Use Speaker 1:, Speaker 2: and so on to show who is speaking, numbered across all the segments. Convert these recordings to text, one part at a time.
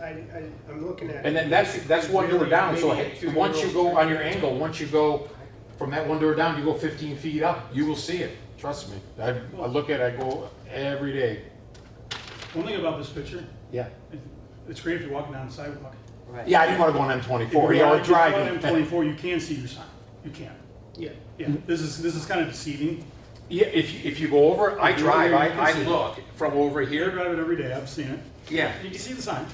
Speaker 1: I, I, am looking at.
Speaker 2: And
Speaker 1: it.
Speaker 2: then that's, that's one door
Speaker 1: Really,
Speaker 2: down, so
Speaker 1: maybe two
Speaker 2: once you
Speaker 1: doors.
Speaker 2: go on your angle, once you go from that one door down, you go fifteen feet up, you will see it, trust me. I, I look at it, I go every day.
Speaker 3: One thing about this picture,
Speaker 2: Yeah.
Speaker 3: it- it's great if you're walking down the sidewalk.
Speaker 4: Right.
Speaker 2: Yeah, I didn't wanna go on M
Speaker 3: If you're
Speaker 2: twenty-four, you know,
Speaker 3: walking- if you're
Speaker 2: driving.
Speaker 3: on M24, you can see your sign. You can.
Speaker 1: Yeah.
Speaker 3: Yeah, this is, this is kind of deceiving.
Speaker 2: Yeah, if, you- if you go over, I
Speaker 3: If you
Speaker 2: drive,
Speaker 3: go over,
Speaker 2: I,
Speaker 3: you can
Speaker 2: I
Speaker 3: see it.
Speaker 2: look from over
Speaker 3: I
Speaker 2: here,
Speaker 3: drive it every day, I've seen it.
Speaker 2: yeah.
Speaker 3: You can see the sign.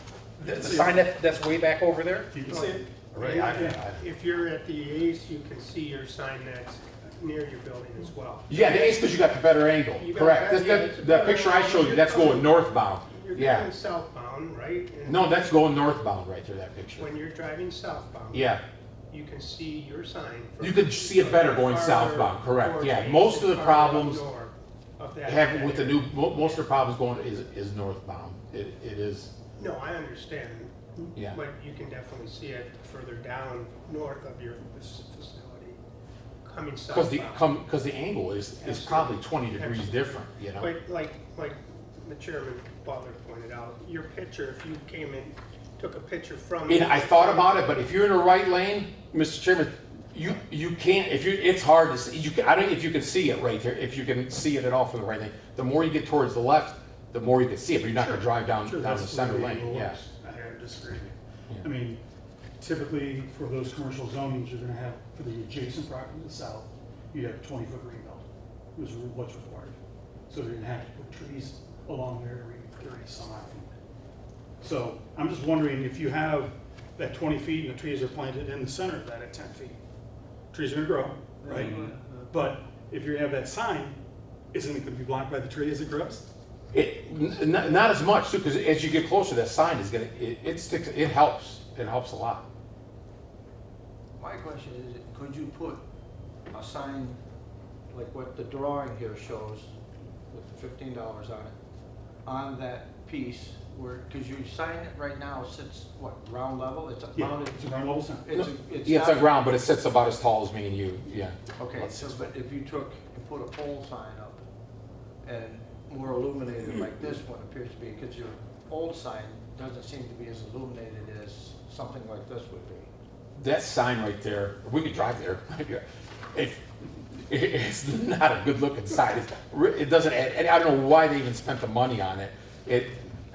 Speaker 2: The the sign that, that's way back over there?
Speaker 3: You can see it.
Speaker 2: Right, I- I-
Speaker 1: If you're at the Ace, you can see your sign that's near your building as well.
Speaker 2: Yeah, the ace because you got the better angle,
Speaker 1: You got
Speaker 2: correct.
Speaker 1: better-
Speaker 2: That's,
Speaker 1: yeah, it's a
Speaker 2: that, that
Speaker 1: better
Speaker 2: picture I
Speaker 1: angle.
Speaker 2: showed you, that's going northbound,
Speaker 1: You're
Speaker 2: yeah.
Speaker 1: going southbound, right? And
Speaker 2: No, that's going northbound right there, that picture.
Speaker 1: When you're driving southbound.
Speaker 2: Yeah.
Speaker 1: You can see your sign. from-
Speaker 2: You could see it better going
Speaker 1: farther
Speaker 2: southbound, correct,
Speaker 1: towards
Speaker 2: yeah.
Speaker 1: Ace
Speaker 2: Most of
Speaker 1: and
Speaker 2: the
Speaker 1: farther
Speaker 2: problems
Speaker 1: outdoor of that-
Speaker 2: have
Speaker 1: that
Speaker 2: with the
Speaker 1: area.
Speaker 2: new, mo- most of the problems going is, is northbound. It, it is,
Speaker 1: No, I understand.
Speaker 2: Yeah.
Speaker 1: But you can definitely see it further down north of your fac- facility, coming
Speaker 2: because the,
Speaker 1: southbound.
Speaker 2: come, because the angle is, is
Speaker 1: Absolutely.
Speaker 2: probably twenty degrees
Speaker 1: Absolutely.
Speaker 2: different, you know?
Speaker 1: But like, like the chairman Butler pointed out, your picture, if you came and took a picture from.
Speaker 2: And I thought about it, but if you're in the right lane, Mr. Chairman, you, you can't, if you, it's hard to see, you, can- I don't, if you can see it right there, if you can see it at all from the right lane. The more you get towards the left, the more you can see it, but you're not gonna drive down,
Speaker 3: Sure,
Speaker 2: down the
Speaker 3: that's
Speaker 2: center
Speaker 3: way
Speaker 2: lane,
Speaker 3: it
Speaker 2: yeah.
Speaker 3: works. I disagree. I mean, typically for those commercial zonings, you're gonna have, for the adjacent property to the south, you have twenty foot green belt, which is what's required. So they're gonna have to put trees along there every thirty some odd feet. So I'm just wondering if you have that twenty feet and the trees are planted in the center of that at ten feet. Trees are gonna grow, right? But if you have that sign, isn't it gonna be blocked by the tree as it grows?
Speaker 2: It, n- n- not as much too, because as you get closer, that sign is gonna, it, it sticks, it helps, it helps a lot.
Speaker 4: My question is, could you put a sign like what the drawing here shows with the fifteen dollars on it, on that piece where, cause your sign right now sits, what, ground level? It's
Speaker 3: Yeah,
Speaker 4: mounted,
Speaker 3: it's a ground level sign.
Speaker 4: it's,
Speaker 2: Yeah,
Speaker 4: it's
Speaker 2: it's on
Speaker 4: not.
Speaker 2: ground, but it sits about as tall as me and you, yeah.
Speaker 4: Okay,
Speaker 2: About
Speaker 4: so,
Speaker 2: six
Speaker 4: but if you took and put a pole sign up and more illuminated like this one appears to be, cause your old sign doesn't seem to be as illuminated as something like this would be.
Speaker 2: That sign right there, we could drive there. If, it's not a good looking sign. It's re- It doesn't add, and I don't know why they even spent the money on it. It,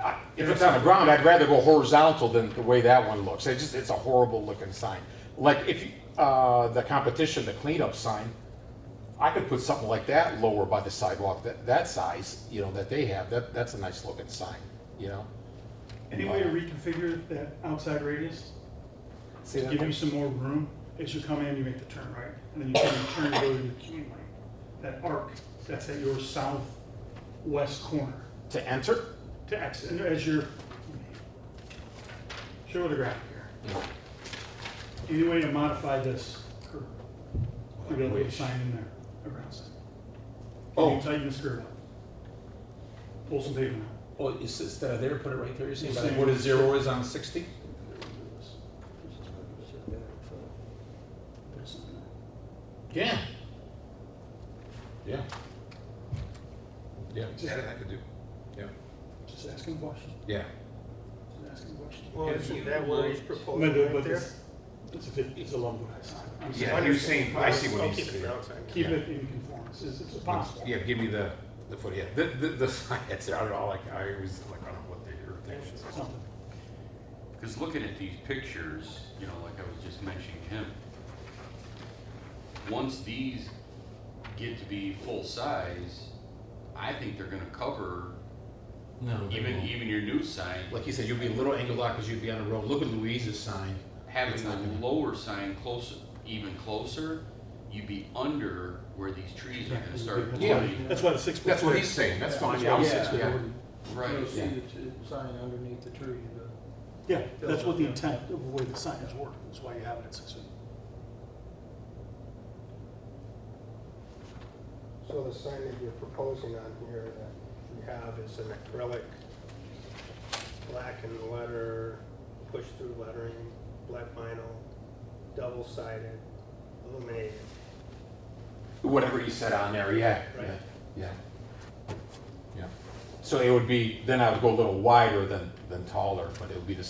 Speaker 2: I- if it's on the ground, I'd rather go horizontal than the way that one looks. It's just, it's a horrible looking sign. Like if, you- uh, the competition, the cleanup sign, I could put something like that lower by the sidewalk, that, that size, you know, that they have. That, that's a nice looking sign, you know?
Speaker 3: Any way to reconfigure that outside radius
Speaker 2: See
Speaker 3: to
Speaker 2: that?
Speaker 3: give you some more room? As you come in, you make the turn right, and then you turn, turn to go to the queue lane. That arc, that's at your southwest corner
Speaker 2: To enter?
Speaker 3: to exit, and as you're, show the graphic here.
Speaker 2: Yeah.
Speaker 3: Any way to modify this curve? We gotta put a sign in there, around sign. Can
Speaker 5: Oh.
Speaker 3: you tighten this curve up? Pull some pavement out.
Speaker 5: Well, it's, instead of there, put it right there, you're saying,
Speaker 3: You're
Speaker 5: by the-
Speaker 3: saying-
Speaker 5: what a zero is on sixty?
Speaker 3: Put something in
Speaker 2: Yeah. Yeah.
Speaker 5: Yeah,
Speaker 3: Yeah.
Speaker 5: that I could do, yeah,
Speaker 3: there. Just asking a question,
Speaker 5: yeah.
Speaker 3: just asking a question.
Speaker 1: Well, isn't that what he's proposing
Speaker 3: But, the-
Speaker 1: right
Speaker 3: but
Speaker 1: there?
Speaker 3: this, it's a, fif- it's a low price. I'm
Speaker 5: Yeah,
Speaker 3: sorry.
Speaker 5: you're saying- I see what
Speaker 1: I'll
Speaker 5: he's
Speaker 1: keep it
Speaker 5: saying.
Speaker 1: ground sign.
Speaker 3: Keep it in conformance, it's, it's possible.
Speaker 5: Yeah, give me the, the foot, yeah, the, the, the sign, that's, I don't know, like, I always, like, I don't know what the irritation is.
Speaker 3: Something.
Speaker 6: Because looking at these pictures, you know, like I was just mentioning him, once these get to be full size, I think they're gonna cover
Speaker 2: No.
Speaker 6: even, even your new sign,
Speaker 2: like you said, you'd be a little angled out because you'd be on the road. Look at Louise's sign.
Speaker 6: having
Speaker 2: It's not
Speaker 6: the
Speaker 2: gonna-
Speaker 6: lower sign closer, even closer, you'd be under where these trees are gonna start
Speaker 2: Yeah.
Speaker 6: blowing.
Speaker 3: That's why the six.
Speaker 5: That's what he's saying, that's fine, yeah, I'm
Speaker 4: Yeah.
Speaker 5: six, yeah.
Speaker 4: You'll
Speaker 6: Right,
Speaker 4: see
Speaker 2: Yeah.
Speaker 4: the t- sign underneath the tree, the-
Speaker 3: Yeah, that's what the intent of the way the sign is working, that's why you have it at six feet.
Speaker 1: So the sign that you're proposing on here that you have is an acrylic, black and letter, push-through lettering, black vinyl, double-sided, illuminated.
Speaker 2: Whatever you said on there, yeah.
Speaker 1: Right.
Speaker 2: Yeah. Yeah. yeah. So it would be, then I would go a little wider than, than taller, but it would be the